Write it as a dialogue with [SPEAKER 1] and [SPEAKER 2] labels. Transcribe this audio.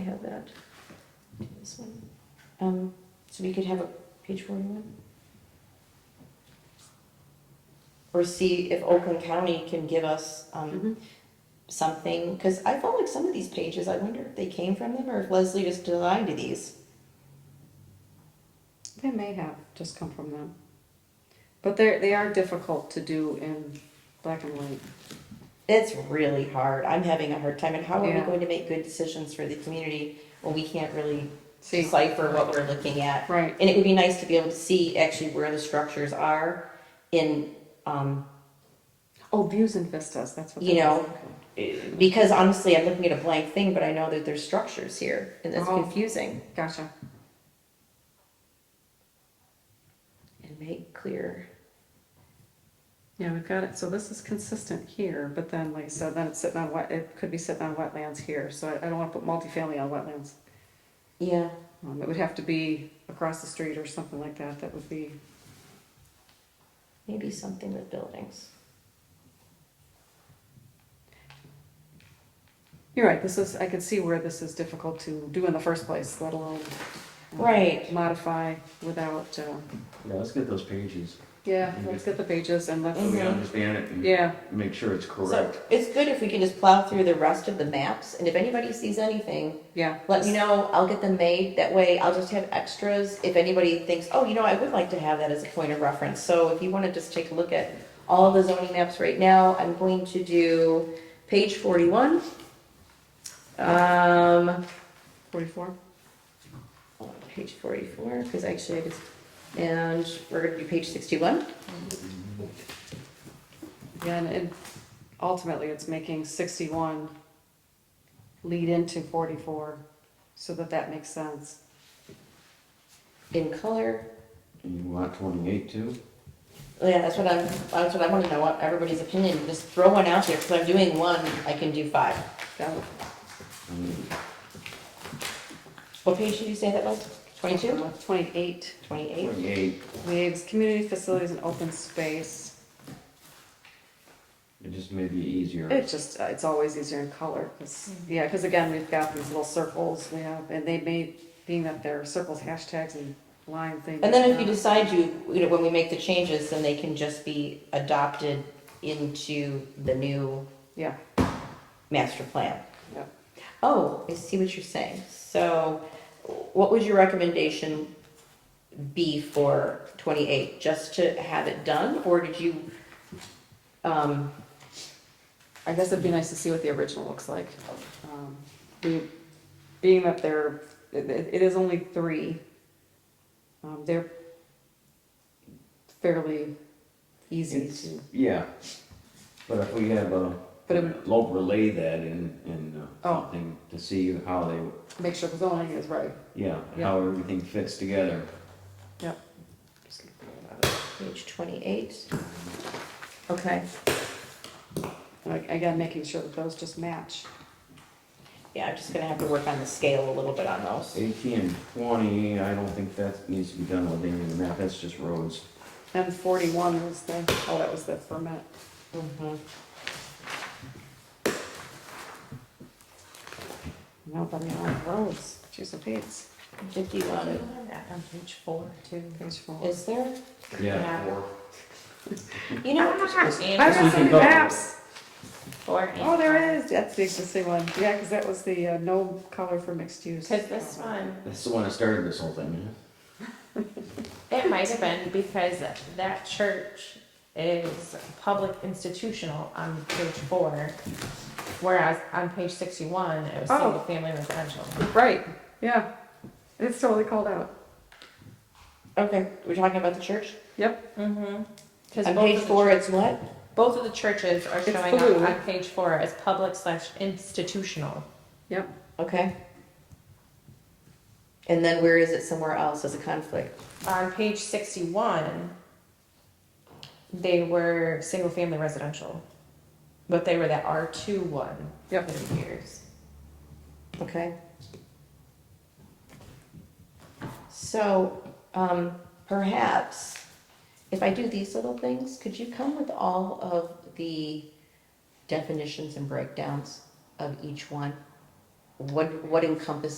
[SPEAKER 1] have that. Do This one. Um, so we could have a page forty-one? Or see if Oakland County can give us,
[SPEAKER 2] Mm-hmm.
[SPEAKER 1] um, something, cause I felt like some of these pages, I wonder if they came from them or if Leslie just designed these.
[SPEAKER 2] They may have just come from them. But they're, they are difficult to do in black and white.
[SPEAKER 1] It's really hard. I'm having a hard time and how are we
[SPEAKER 2] Yeah.
[SPEAKER 1] going to make good decisions for the community when we can't really
[SPEAKER 2] See,
[SPEAKER 1] decipher what we're looking at?
[SPEAKER 2] right,
[SPEAKER 1] And it would be nice to be able to see actually where the structures are in, um,
[SPEAKER 2] oh, views and vistas, that's what.
[SPEAKER 1] You
[SPEAKER 2] that is,
[SPEAKER 1] know,
[SPEAKER 2] okay.
[SPEAKER 1] because honestly, I'm looking at a blank thing, but I know that there's structures here and that's
[SPEAKER 2] Oh.
[SPEAKER 1] confusing.
[SPEAKER 2] Gotcha,
[SPEAKER 1] And make clear.
[SPEAKER 2] yeah, we've got it, so this is consistent here, but then, like I said, then it's sitting on wet, it could be sitting on wetlands here, so I, I don't wanna put multifamily on wetlands.
[SPEAKER 1] Yeah,
[SPEAKER 2] Um, it would have to be across the street or something like that, that would be,
[SPEAKER 1] maybe something with buildings.
[SPEAKER 2] you're right, this is, I could see where this is difficult to do in the first place, let alone. um,
[SPEAKER 1] Right.
[SPEAKER 2] Modify without, uh,
[SPEAKER 3] Yeah, let's get those pages.
[SPEAKER 2] yeah, let's get the pages and let's,
[SPEAKER 3] So we understand it and
[SPEAKER 2] yeah,
[SPEAKER 3] make sure it's
[SPEAKER 1] So
[SPEAKER 3] correct.
[SPEAKER 1] it's good if we can just plow through the rest of the maps and if anybody sees anything,
[SPEAKER 2] yeah.
[SPEAKER 1] let me know. I'll get them made. That way I'll just have extras. If anybody thinks, oh, you know, I would like to have that as a point of reference. So if you want to just take a look at all the zoning maps right now, I'm going to do page forty-one. Um,
[SPEAKER 2] Forty-four?
[SPEAKER 1] hold on, page forty-four, because actually I just, and we're gonna do page sixty-one.
[SPEAKER 2] Yeah, and, and ultimately, it's making sixty-one lead into forty-four, so that that makes sense.
[SPEAKER 1] In color. Oh,
[SPEAKER 3] And you want twenty-eight too?
[SPEAKER 1] Yeah, that's what I'm, that's what I want to know, what everybody's opinion. Just throw one out there, because I'm doing one, I can do five.
[SPEAKER 2] That would-
[SPEAKER 3] I mean,
[SPEAKER 1] What page did you say that was? Twenty-two?
[SPEAKER 2] Twenty-eight,
[SPEAKER 1] Twenty-eight?
[SPEAKER 3] Twenty-eight,
[SPEAKER 2] leaves community facilities and open space.
[SPEAKER 3] it just may be easier.
[SPEAKER 2] It's just, uh, it's always easier in color, 'cause-
[SPEAKER 1] Mm-hmm.
[SPEAKER 2] yeah, because again, we've got these little circles, we have, and they may, being that they're circles, hashtags, and lines, they.
[SPEAKER 1] And then if
[SPEAKER 2] may
[SPEAKER 1] you
[SPEAKER 2] not-
[SPEAKER 1] decide you, you know, when we make the changes, then they can just be adopted into the new
[SPEAKER 2] Yeah,
[SPEAKER 1] master plan.
[SPEAKER 2] yeah.
[SPEAKER 1] Oh, I see what you're saying. So what would your recommendation be for twenty-eight? Just to have it done, or did you, um,
[SPEAKER 2] I guess it'd be nice to see what the original looks like. Um, we- Being that there, it it is only three, um, they're fairly easy
[SPEAKER 3] It's-
[SPEAKER 2] to,
[SPEAKER 3] Yeah, but if we have a,
[SPEAKER 2] But it would-
[SPEAKER 3] we'll relay that in, in uh,
[SPEAKER 2] Oh.
[SPEAKER 3] something to see how they,
[SPEAKER 2] make sure the zoning is right.
[SPEAKER 3] yeah,
[SPEAKER 2] Yeah.
[SPEAKER 3] how everything fits together.
[SPEAKER 2] Yep.
[SPEAKER 1] page twenty-eight? Okay.
[SPEAKER 2] Like, Again, making sure that those just match.
[SPEAKER 1] Yeah, I'm just gonna have to work on the scale a little bit on those.
[SPEAKER 3] Eighteen and twenty, I don't think that needs to be done with any of the map, that's just roads.
[SPEAKER 2] And forty-one was the, oh, that was the ferment.
[SPEAKER 1] Mhm.
[SPEAKER 2] Nobody on roads, geez, the pates,
[SPEAKER 1] Fifty-one, back on page four too.
[SPEAKER 2] page four.
[SPEAKER 1] Is there?
[SPEAKER 3] Yeah.
[SPEAKER 1] Four. You know,
[SPEAKER 2] I
[SPEAKER 3] This we
[SPEAKER 2] read so
[SPEAKER 3] can
[SPEAKER 2] many
[SPEAKER 3] go.
[SPEAKER 2] maps.
[SPEAKER 1] Four.
[SPEAKER 2] Oh, there is, that's the existing one, yeah, because that was the uh, no color for mixed use.
[SPEAKER 4] Because this one,
[SPEAKER 3] That's the one that started this whole thing,
[SPEAKER 4] it might have been because that church is public institutional on page four, whereas on page sixty-one, it was
[SPEAKER 2] Oh.
[SPEAKER 4] single family residential.
[SPEAKER 2] Right, yeah. It's totally called out.
[SPEAKER 1] Okay, we're talking about the church?
[SPEAKER 2] Yep.
[SPEAKER 4] Mm-hmm. Because
[SPEAKER 1] On
[SPEAKER 4] both
[SPEAKER 1] page
[SPEAKER 4] of the-
[SPEAKER 1] four, it's what?
[SPEAKER 4] Both of the churches are
[SPEAKER 2] It's
[SPEAKER 4] showing up
[SPEAKER 2] blue.
[SPEAKER 4] on page four as public slash institutional.
[SPEAKER 2] Yep.
[SPEAKER 1] Okay. And then where is it somewhere else as a conflict?
[SPEAKER 4] On page sixty-one, they were single family residential, but they were the R two one
[SPEAKER 2] Yep.
[SPEAKER 4] for the years.
[SPEAKER 1] Okay. So, um, perhaps if I do these little things, could you come with all of the definitions and breakdowns of each one? What, what encompasses